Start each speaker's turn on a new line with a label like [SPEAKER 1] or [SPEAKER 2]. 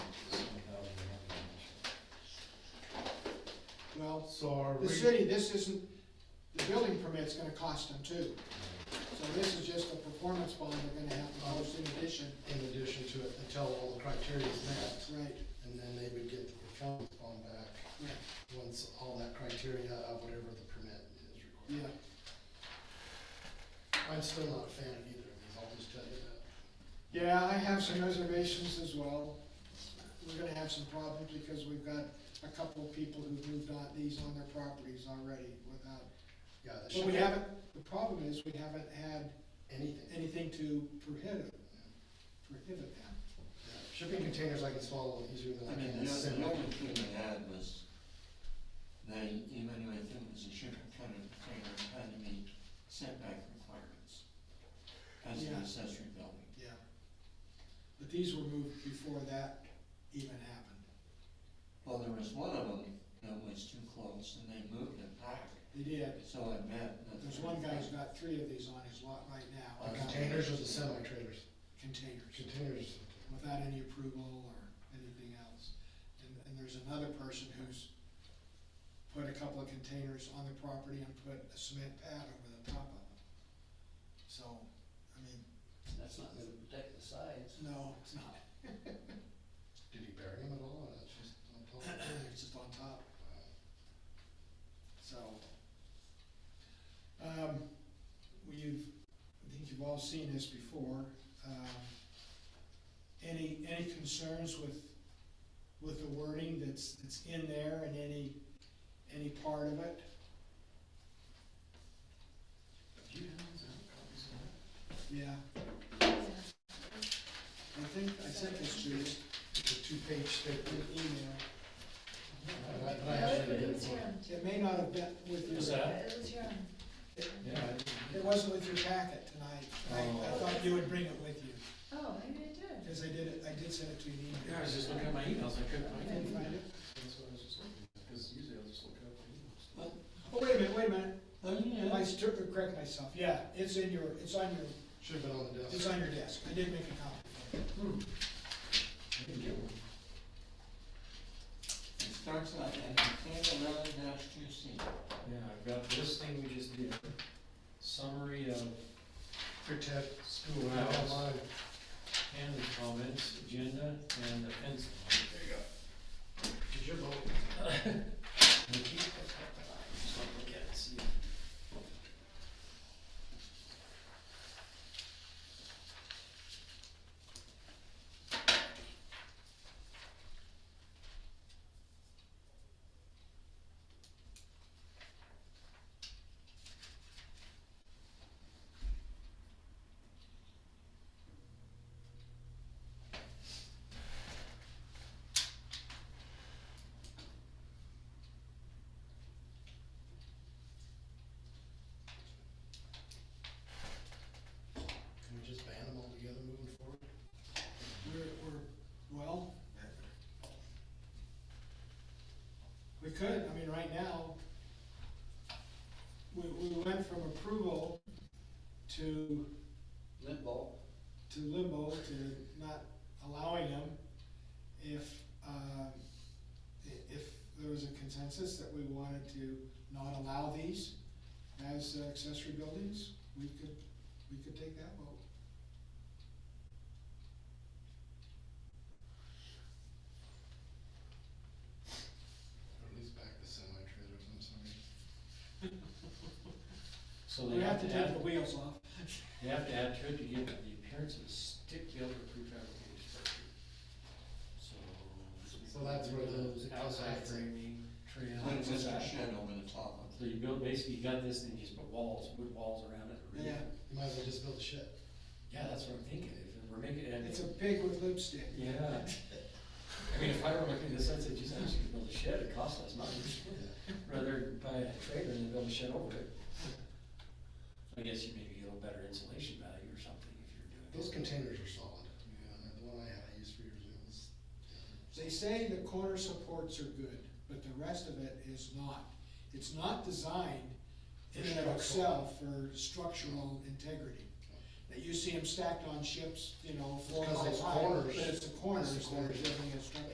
[SPEAKER 1] So are we?
[SPEAKER 2] The city, this isn't, the building permit's gonna cost them too. So this is just a performance bond they're gonna have to post in addition.
[SPEAKER 3] in addition to it, until all the criteria is met,
[SPEAKER 2] Right,
[SPEAKER 3] and then they would get the performance bond back,
[SPEAKER 2] right,
[SPEAKER 3] once all that criteria of whatever the permit is
[SPEAKER 2] yeah.
[SPEAKER 3] required. I'm still not a fan of either of these, I'll just tell you that.
[SPEAKER 2] Yeah, I have some reservations as well. We're gonna have some problems because we've got a couple of people who've moved on, these on their properties already without.
[SPEAKER 3] Yeah, that
[SPEAKER 2] But we
[SPEAKER 3] should have
[SPEAKER 2] haven't, the problem is, we haven't had
[SPEAKER 3] anything.
[SPEAKER 2] anything to prohibit, prohibit that.
[SPEAKER 3] Yeah, Shipping containers I can swallow easier than
[SPEAKER 4] I
[SPEAKER 3] I
[SPEAKER 4] mean,
[SPEAKER 3] can.
[SPEAKER 4] the other,
[SPEAKER 3] sand.
[SPEAKER 4] the only thing they had was, they evaluated them as a shipping kind of container and had to meet setback requirements as an
[SPEAKER 2] Yeah.
[SPEAKER 4] accessory building.
[SPEAKER 2] Yeah. But these were moved before that even happened.
[SPEAKER 4] Well, there was one of them that was too close and they moved it back,
[SPEAKER 2] They did.
[SPEAKER 4] so it meant that.
[SPEAKER 2] There's one guy who's got three of these on his lot right now.
[SPEAKER 3] The
[SPEAKER 2] without
[SPEAKER 3] Uh, Containers or the semi-trailers?
[SPEAKER 2] Containers,
[SPEAKER 3] Containers,
[SPEAKER 2] without any approval or anything else. And, and there's another person who's put a couple of containers on the property and put a cement pad over the top of them. So, I mean,
[SPEAKER 5] That's not gonna protect the sides.
[SPEAKER 2] no, it's not.
[SPEAKER 3] did he bury them at all, or that's just on top?
[SPEAKER 2] It's just on top. So, um, we've, I think you've all seen this before. Um, Any, any concerns with, with the wording that's, that's in there and any, any part of it? Yeah. I think, I sent this to you
[SPEAKER 3] It's a two-page
[SPEAKER 2] in
[SPEAKER 3] statement,
[SPEAKER 2] an email.
[SPEAKER 3] Uh, but I- but I
[SPEAKER 6] No,
[SPEAKER 3] actually
[SPEAKER 6] It
[SPEAKER 3] did
[SPEAKER 6] was here.
[SPEAKER 3] one.
[SPEAKER 2] It may not have been with your.
[SPEAKER 5] Is that-
[SPEAKER 6] It was here.
[SPEAKER 3] Yeah, I
[SPEAKER 2] It
[SPEAKER 3] did.
[SPEAKER 2] wasn't with your packet tonight. I, I thought you would bring it with you,
[SPEAKER 6] Oh, maybe I did.
[SPEAKER 2] because I did it, I did send it to you in email.
[SPEAKER 7] Yeah, I was just looking at my emails, I couldn't
[SPEAKER 2] I
[SPEAKER 7] find
[SPEAKER 2] didn't
[SPEAKER 7] it.
[SPEAKER 2] find it.
[SPEAKER 7] That's what I was just looking at, because usually I'll just look at my emails.
[SPEAKER 4] But,
[SPEAKER 2] Oh, wait a minute, wait a minute.
[SPEAKER 4] but, you know,
[SPEAKER 2] I took, correct myself. Yeah, it's in your, it's on your,
[SPEAKER 3] Should've been on the desk.
[SPEAKER 2] it's on your desk. I did make a copy.
[SPEAKER 3] I didn't get one.
[SPEAKER 4] it starts out at container eleven dash two C.
[SPEAKER 7] Yeah, I've got this thing we just did, summary of
[SPEAKER 3] Protect school
[SPEAKER 7] Wow.
[SPEAKER 3] online.
[SPEAKER 7] candidate comments, agenda, and the fence. There you
[SPEAKER 3] Did your vote?
[SPEAKER 7] go. Just wanna look at it, see.
[SPEAKER 3] Can we just ban them all together moving forward?
[SPEAKER 2] We're, we're, well. We could, I mean, right now, we, we went from approval to
[SPEAKER 5] Limbo.
[SPEAKER 2] to limbo, to not allowing them if, um, i- if there was a consensus that we wanted to not allow these as accessory buildings, we could, we could take that vote.
[SPEAKER 3] Or at least back the semi-trailers, I'm sorry.
[SPEAKER 7] So
[SPEAKER 2] We
[SPEAKER 7] they
[SPEAKER 2] have to take
[SPEAKER 7] add,
[SPEAKER 2] the wheels off.
[SPEAKER 7] they have to add to it to give it the appearance of a stick-built or prefabricated structure. So.
[SPEAKER 3] So that's where those
[SPEAKER 7] Outside
[SPEAKER 3] outside-
[SPEAKER 7] framing, trail.
[SPEAKER 4] Put a winter
[SPEAKER 7] outside.
[SPEAKER 4] shed over the top of it.
[SPEAKER 7] So you built, basically you got this and you just put walls, wood walls around it. or-
[SPEAKER 2] Yeah.
[SPEAKER 3] You might as well just build a shed.
[SPEAKER 7] Yeah, that's what I'm thinking, if we're making it.
[SPEAKER 2] It's a pig with lipstick.
[SPEAKER 7] Yeah. I mean, if I were looking at this, I'd say, geez, I'm just gonna build a shed, it costs less money, rather buy a trailer and build a shed over it. I guess you maybe get a little better insulation value or something if you're doing.
[SPEAKER 3] Those containers are solid. Yeah, The one I had, I used for years, it was.
[SPEAKER 2] They say the corner supports are good, but the rest of it is not. It's not designed in and of
[SPEAKER 3] For structural.
[SPEAKER 2] itself for structural integrity. That you see them stacked on ships, you know, four
[SPEAKER 3] Because those
[SPEAKER 2] miles high, but
[SPEAKER 3] corners-
[SPEAKER 2] it's the corners
[SPEAKER 3] those
[SPEAKER 2] that are
[SPEAKER 3] corners.
[SPEAKER 2] giving it structure.